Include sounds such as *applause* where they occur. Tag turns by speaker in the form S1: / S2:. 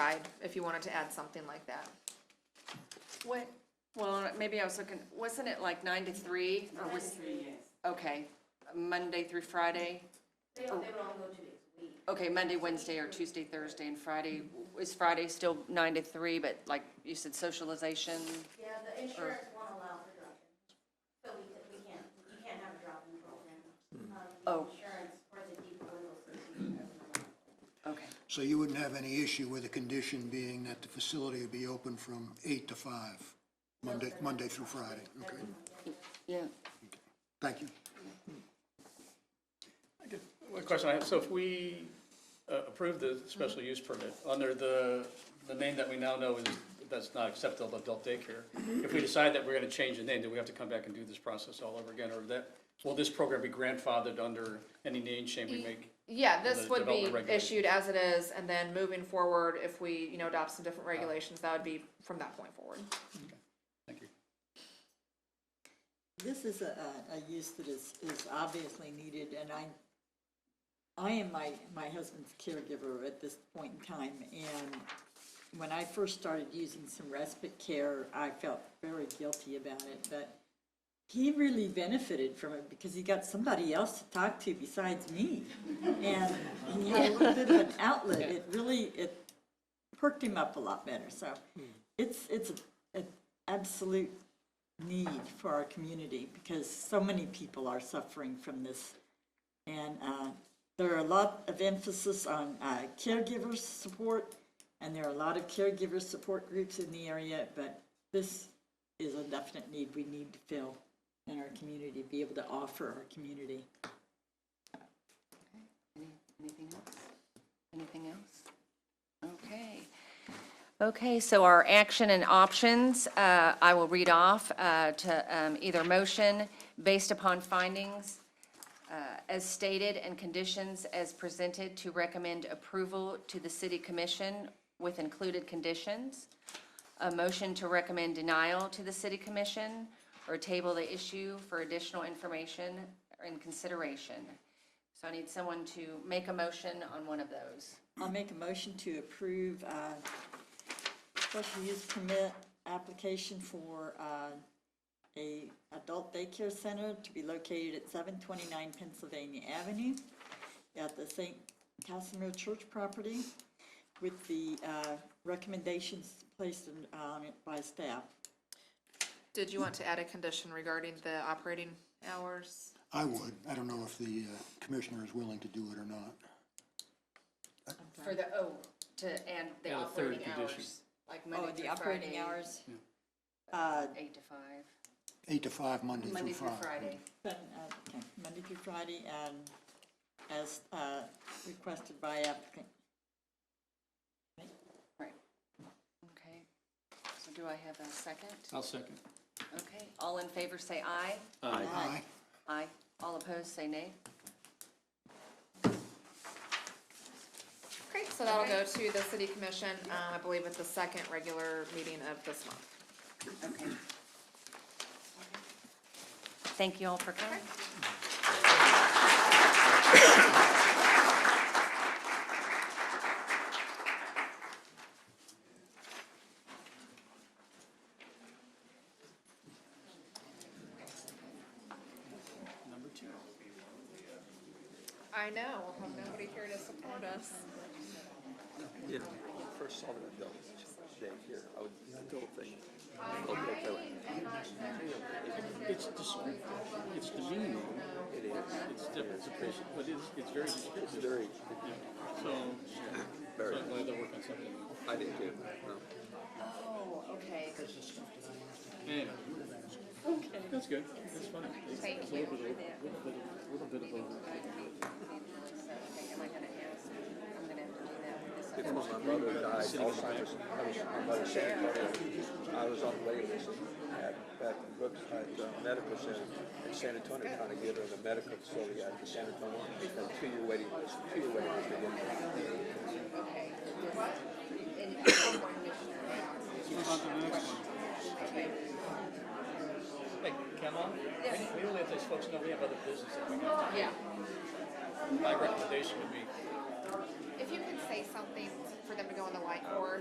S1: side, if you wanted to add something like that.
S2: What, well, maybe I was looking, wasn't it like nine to three? Or
S3: Nine to
S2: was,
S3: three, yes.
S2: okay, Monday through Friday?
S3: They don't, they would all go two days a week.
S2: Okay, Monday, Wednesday, or Tuesday, Thursday, and Friday. Is Friday still nine to three, but like you said, socialization?
S3: Yeah, the insurance won't allow for drop-in. So we, we can't, you can't have a drop-in program. Um, the
S2: Oh.
S3: Insurance or the deep legal system doesn't allow.
S2: Okay,
S4: So you wouldn't have any issue with the condition being that the facility would be open from eight to five, Monday, Monday through Friday? Okay,
S2: yeah.
S4: thank you.
S5: I get- One question I have, so if we uh, approve the special use permit, under the, the name that we now know is, that's not acceptable adult daycare, if we decide that we're gonna change the name, do we have to come back and do this process all over again, or that, will this program be grandfathered under any name change we make?
S1: Yeah,
S5: Well,
S1: this
S5: the
S1: would be
S5: development regulations.
S1: issued as it is, and then moving forward, if we, you know, adopt some
S5: Oh.
S1: different regulations, that would be from that point forward.
S5: Thank you.
S6: This is a, a- a use that is, is obviously needed, and I, I am my, my husband's caregiver at this point in time, and when I first started using some respite care, I felt very guilty about it, but he really benefited from it because he got somebody else to talk to besides me. And he had a little bit of an outlet, it really, it perked him up a lot better, so it's, it's a- an absolute need for our community because so many people are suffering from this. And uh, there are a lot of emphasis on uh, caregiver support, and there are a lot of caregiver support groups in the area, but this is a definite need we need to fill in our community, be able to offer our community.
S2: Any- Anything else? Anything else? Okay. Okay, so our action and options, uh, I will read off uh, to um, either motion based upon findings uh, as stated and conditions as presented to recommend approval to the city commission with included conditions, a motion to recommend denial to the city commission, or table the issue for additional information and consideration. So I need someone to make a motion on one of those.
S6: I'll make a motion to approve uh, special use permit application for uh, a adult daycare center to be located at seven twenty-nine Pennsylvania Avenue at the St. Casimir Church property with the uh, recommendations placed in- on it by staff.
S1: Did you want to add a condition regarding the operating hours?
S4: I would, I don't know if the uh, commissioner is willing to do it or not.
S2: For the, oh, to, and the
S5: And a third
S2: operating
S5: condition.
S2: hours, like
S6: Oh,
S2: Monday
S6: the
S2: through
S6: operating
S2: Friday.
S6: hours. Uh,
S2: Eight to five,
S4: Eight to five, Monday through
S2: Monday
S4: Friday.
S2: through Friday.
S6: But, uh, okay, Monday through Friday, and as uh, requested by applicant.
S2: Right. Okay. So do I have a second?
S5: I'll second.
S2: Okay, all in favor say aye.
S5: Aye.
S4: Aye.
S2: Aye. All opposed say nay.
S1: Great, so that'll go to the city commission, um, I believe at the second regular meeting of this month.
S2: Okay. Thank you all for coming.
S5: Number two.
S1: I know, we'll have nobody here to support us.
S7: Yeah, when I first saw the adult daycare, I was, the adult thing, adult daycare,
S5: It's dis- it's disunion. It is. It's different, it's patient, but it's, it's very
S7: it's
S5: discriminating.
S7: very,
S5: So, so
S7: very,
S5: I'm glad they're working on something.
S7: I uh, didn't do, no.
S2: Oh, okay.
S5: Anyway. That's good, that's funny. It's
S2: Thank
S5: a
S2: you
S5: little bit of-
S2: for that.
S5: little bit of- little bit of a-
S2: Am I gonna ask? I'm gonna have to do that with this.
S7: Before my mother died, Alzheimer's, I was, my mother said, I was on the waiting list at, at Brooks, at uh, Medical Center in San Antonio, trying to get her in the medical facility out in San Antonio, a two-year waiting list, two-year waiting list to get her.
S1: *coughs*
S5: Hey, Kamala?
S2: Yes.
S5: We only have those folks know we have other business that we have.
S1: Yeah,
S5: My recommendation would be,
S1: if you could say something for them to go on the whiteboard,